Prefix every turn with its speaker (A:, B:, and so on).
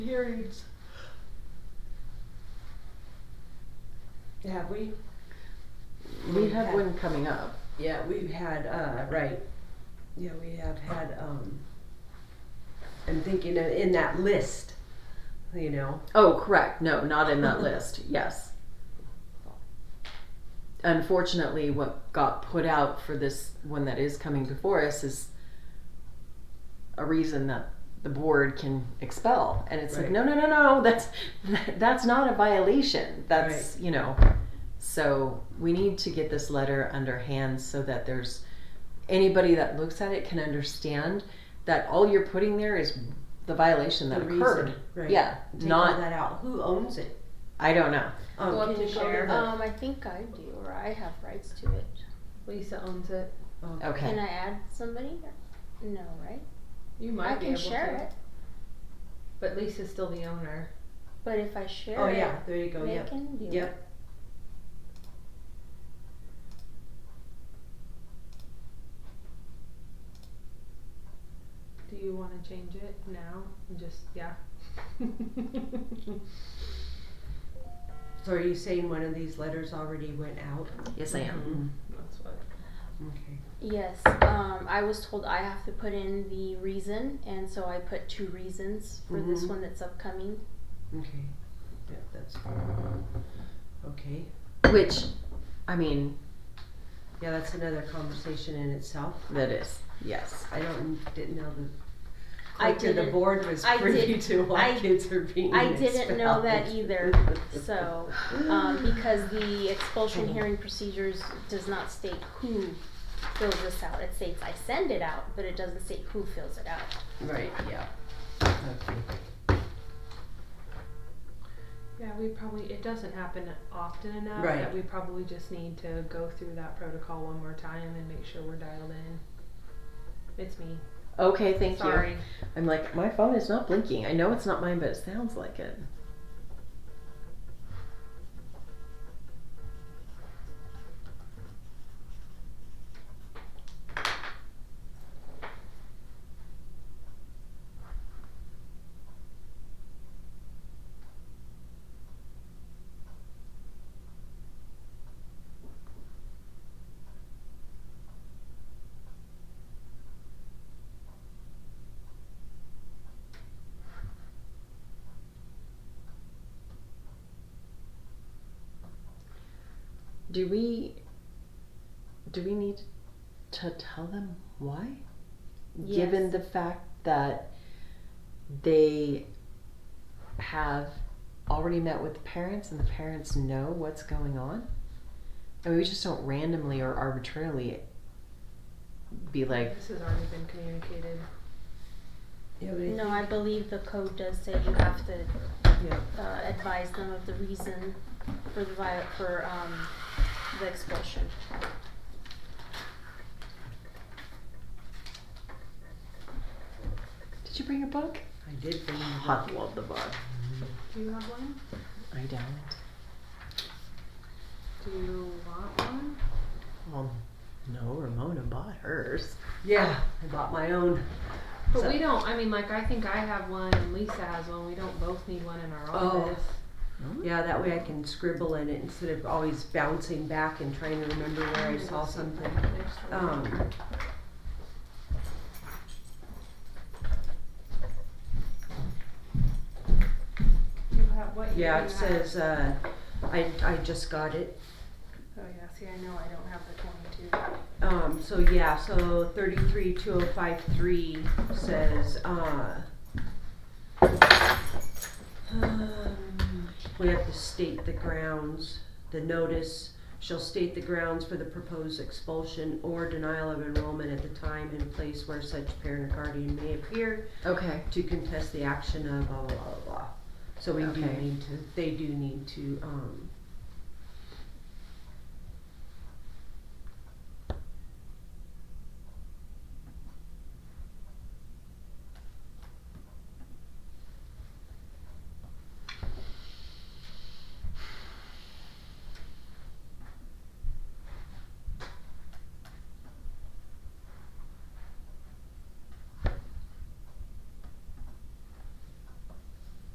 A: hearings.
B: Have we?
A: We had one coming up.
B: Yeah, we've had, uh, right, yeah, we have had, um, I'm thinking of- in that list, you know,
A: Oh, correct. No, not in that list. Yes. Unfortunately, what got put out for this one that is coming before us is a reason that the board can expel, and it's like,
B: Right.
A: no, no, no, no. That's that's not a violation. That's you know. So we need to get this letter under hand so that there's anybody that looks at it can understand that all you're putting there is the violation that
B: the
A: occurred.
B: reason, right?
A: Yeah,
B: Take all
A: not,
B: that out. Who owns it?
A: I don't know.
B: Um,
C: Well,
B: can you
C: people-
B: share?
C: Um, I think I do, or I have rights to it. Lisa owns it. Can
A: Okay.
C: I add somebody? or- No, right?
D: You might
C: I
D: be
C: can
D: able
C: share
D: to,
C: it,
D: but Lisa's still the owner.
C: but if I share
B: oh
C: it,
B: yeah, there you go.
C: they
B: Yep.
C: can do it.
B: Yep.
D: Do you want to change it now? And just yeah.
B: So are you saying one of these letters already went out? Mm-hmm.
A: Yes, I am.
D: That's what.
B: Okay.
C: Yes, um, I was told I have to put in the reason, and so I put two reasons for this
B: Mhm.
C: one that's upcoming.
B: Okay. Yeah, that's fine. Okay.
A: Which, I mean,
B: Yeah, that's another conversation in itself.
A: that is, yes.
B: I don't didn't know the.
C: I
B: clerk of The
C: didn't-
B: board was
C: I
B: privy
C: didn't-
B: to why
C: I-
B: kids are being
C: I didn't know that
B: expelled.
C: either, so, um, because the expulsion hearing procedures does not state who fills this out. It states I send it out, but it doesn't state who fills it out.
B: Right, yeah. Okay.
D: Yeah, we probably it doesn't happen often enough
B: Right.
D: that we probably just need to go through that protocol one more time and make sure we're dialed in. It's me.
A: Okay, thank you.
D: Sorry.
A: I'm like, my phone is not blinking. I know it's not mine, but it sounds like it. Do we, do we need to tell them why? Given
C: Yes.
A: the fact that they have already met with the parents and the parents know what's going on? And we just don't randomly or arbitrarily be like,
D: This has already been communicated.
B: Yeah, but I
C: No, I believe the code does say you have to
B: Yeah.
C: uh, advise them of the reason for the vi- for um, the expulsion.
A: did you bring a book?
B: I did bring you
A: I
B: that.
A: love the book.
D: Do you have one?
A: I don't.
D: Do you want one?
A: Well, Um, no, Ramona bought hers.
B: Yeah, I bought my own.
D: But
B: So-
D: we don't. I mean, like I think I have one and Lisa has one. We don't both need one in our
B: Oh.
D: office.
B: Yeah, that way I can scribble in it instead of always bouncing back and trying to remember where I saw something. Um,
D: You have what? you
B: yeah,
D: have.
B: it says, uh, I, I just got it.
D: Oh yeah. See, I know I don't have the twenty-two.
B: Um, so yeah, so thirty-three, two oh five three says, uh, um, we have to state the grounds, the notice shall state the grounds for the proposed expulsion or denial of enrollment at the time and place where such parent or guardian may appear
A: Okay.
B: to contest the action of blah, blah, blah, blah, blah. So we do
A: Okay.
B: need to, they do need to, um,